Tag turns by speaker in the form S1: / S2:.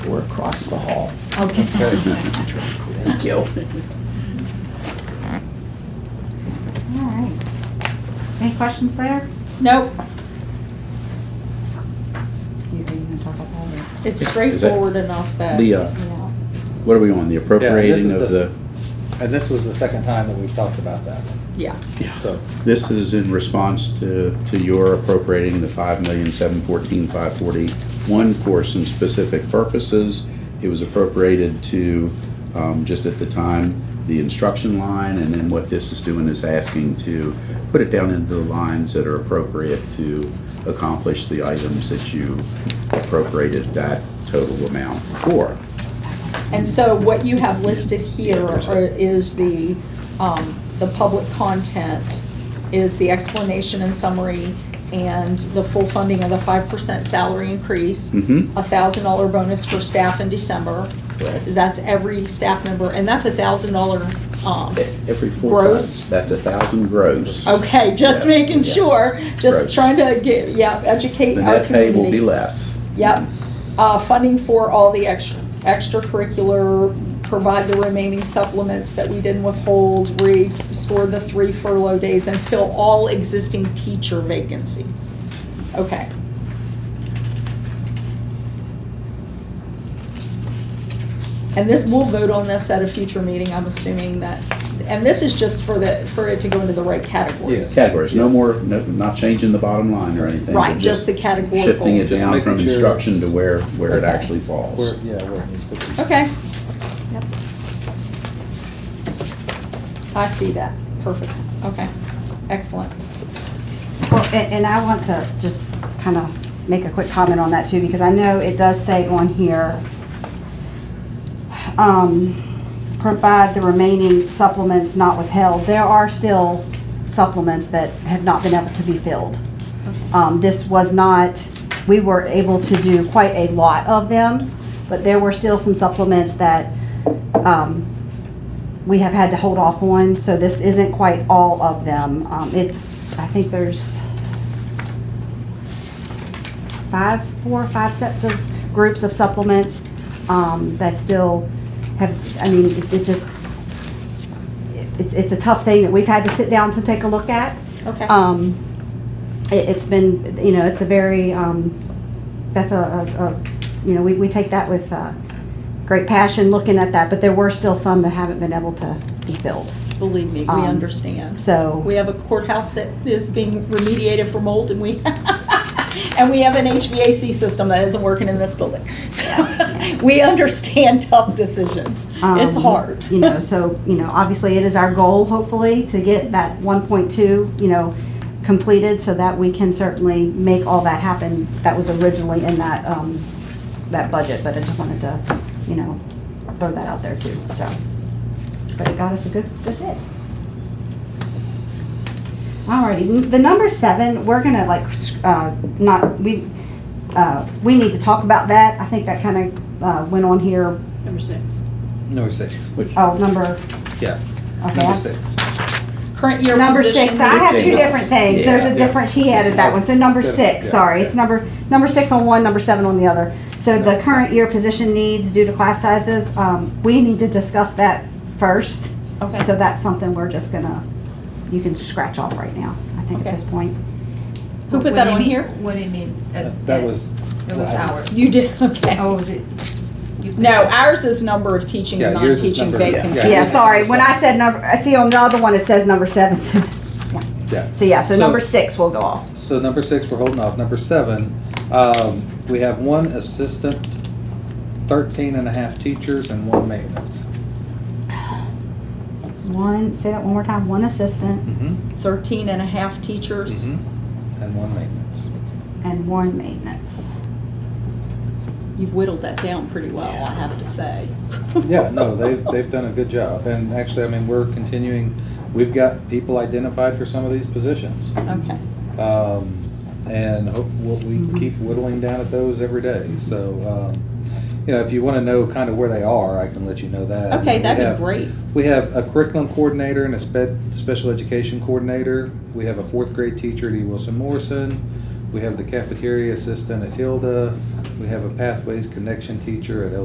S1: over across the hall.
S2: Okay.
S1: Thank you.
S3: All right. Any questions there?
S2: Nope,
S3: You are you gonna talk about that?
S2: it's
S4: Is that
S2: straightforward enough that.
S4: the, uh,
S2: yeah.
S4: What are we on, the appropriating
S5: Yeah,
S4: of
S5: this is
S4: the,
S5: And this was the second time that we've talked about that,
S2: Yeah,
S5: so.
S4: this is in response to, to your appropriating the five million, seven fourteen, five forty-one for some specific purposes. It was appropriated to, um, just at the time, the instruction line, and then what this is doing is asking to put it down into the lines that are appropriate to accomplish the items that you appropriated that total amount for.
S2: and so what you have listed here are- is the, um, the public content, is the explanation and summary, and the full funding of the five percent salary increase,
S4: Mm-hmm.
S2: a thousand dollar bonus for staff in December.
S4: Correct.
S2: That's every staff member, and that's a thousand dollar, um,
S4: Every four
S2: Gross?
S4: times, that's a thousand gross.
S2: okay, just
S4: Yes,
S2: making
S4: yes.
S2: sure, just
S4: Gross.
S2: trying to get, yeah, educate
S4: The
S2: our
S4: net pay will
S2: community.
S4: be less.
S2: Yep. Uh, funding for all the ex- extracurricular, provide the remaining supplements that we didn't withhold, restore the three furlough days, and fill all existing teacher vacancies. Okay. And this, we'll vote on this at a future meeting, I'm assuming that, and this is just for the, for it to go into the right categories.
S5: Yes.
S4: Categories, no more, no, not changing the bottom line or anything.
S2: Right,
S4: but
S2: just the categorical.
S4: Shifting it
S5: Just
S4: down
S5: making
S4: from
S5: sure
S4: instruction
S5: it's-
S4: to where, where it
S2: Okay.
S4: actually
S5: Where,
S4: falls.
S5: yeah, where it needs to be.
S2: Okay. Yep. I see that. Perfect. Okay. Excellent.
S3: Well, a- and I want to just kind of make a quick comment on that too, because I know it does say on here, um, provide the remaining supplements not withheld. There are still supplements that have not been able to be filled. Um, This was not, we were able to do quite a lot of them, but there were still some supplements that um, we have had to hold off on, so this isn't quite all of them. Um, It's, I think there's five, four or five sets of groups of supplements um, that still have, I mean, it- it just, it's, it's a tough thing that we've had to sit down to take a look at.
S2: Okay.
S3: Um, it, it's been, you know, it's a very, um, that's a, a, a, you know, we, we take that with, uh, great passion looking at that, but there were still some that haven't been able to be filled.
S2: Believe me, we
S3: um,
S2: understand.
S3: So,
S2: We have a courthouse that is being remediated for mold and we, and we have an HVAC system that isn't working in this building. So we understand tough decisions. It's
S3: Um,
S2: hard.
S3: you know, so, you know, obviously it is our goal, hopefully, to get that one point two, you know, completed so that we can certainly make all that happen that was originally in that, um, that budget, but I just wanted to, you know, throw that out there too, so. But it got us a good, good bit. Alrighty, the number seven, we're gonna like, uh, not, we, uh, we need to talk about that. I think that kind of, uh, went on here,
S2: Number six.
S5: No six,
S4: Which-
S3: oh, number,
S5: yeah,
S3: okay.
S5: number
S3: I-
S5: six.
S2: Current year
S3: Number
S2: position
S3: six, I have two
S2: needs-
S3: different things, there's
S5: Yeah.
S3: a different, he added that one, so number
S5: Yeah.
S3: six,
S5: Yeah.
S3: sorry, it's number, number six on one, number seven on the other. So the current year position needs due to class sizes, um, we need to discuss that first. So
S2: Okay.
S3: that's something we're just gonna, you can scratch off right now, I think at
S2: Okay.
S3: this point.
S2: Who put
S6: What
S2: that
S6: do you
S2: on
S6: mean-
S2: here?
S6: What do you mean? uh,
S5: That that was,
S6: It was ours.
S2: You did, okay.
S6: Oh, was it? you put
S2: No,
S6: that-
S2: ours is number of teaching and
S5: Yeah, yours is
S2: non-teaching
S5: number- yeah, yeah.
S2: vacancies.
S3: Yeah, sorry, when I said number, I see on the other one it says number seven,
S5: yeah.
S3: so yeah, so
S5: So-
S3: number six will go off.
S5: So number six, we're holding off. Number seven, um, we have one assistant, thirteen and a half teachers, and one maintenance.
S3: One, say that one more time, one assistant
S5: Mm-hmm.
S2: 13 and a half teachers.
S5: And one maintenance.
S3: and one maintenance.
S2: You've whittled that down pretty well, I have to say.
S5: Yeah, no, they've, they've done a good job. And actually, I mean, we're continuing, we've got people identified for some of these positions.
S2: Okay,
S5: Um, and hope, we'll- we keep whittling down at those every day. So, um, you know, if you want to know kind of where they are, I can let you know that.
S2: okay,
S5: We
S2: that'd
S5: have-
S2: be great.
S5: We have a curriculum coordinator and a sped, special education coordinator. We have a fourth grade teacher at E. Wilson Morrison. We have the cafeteria assistant at Hilda. We have a pathways connection teacher at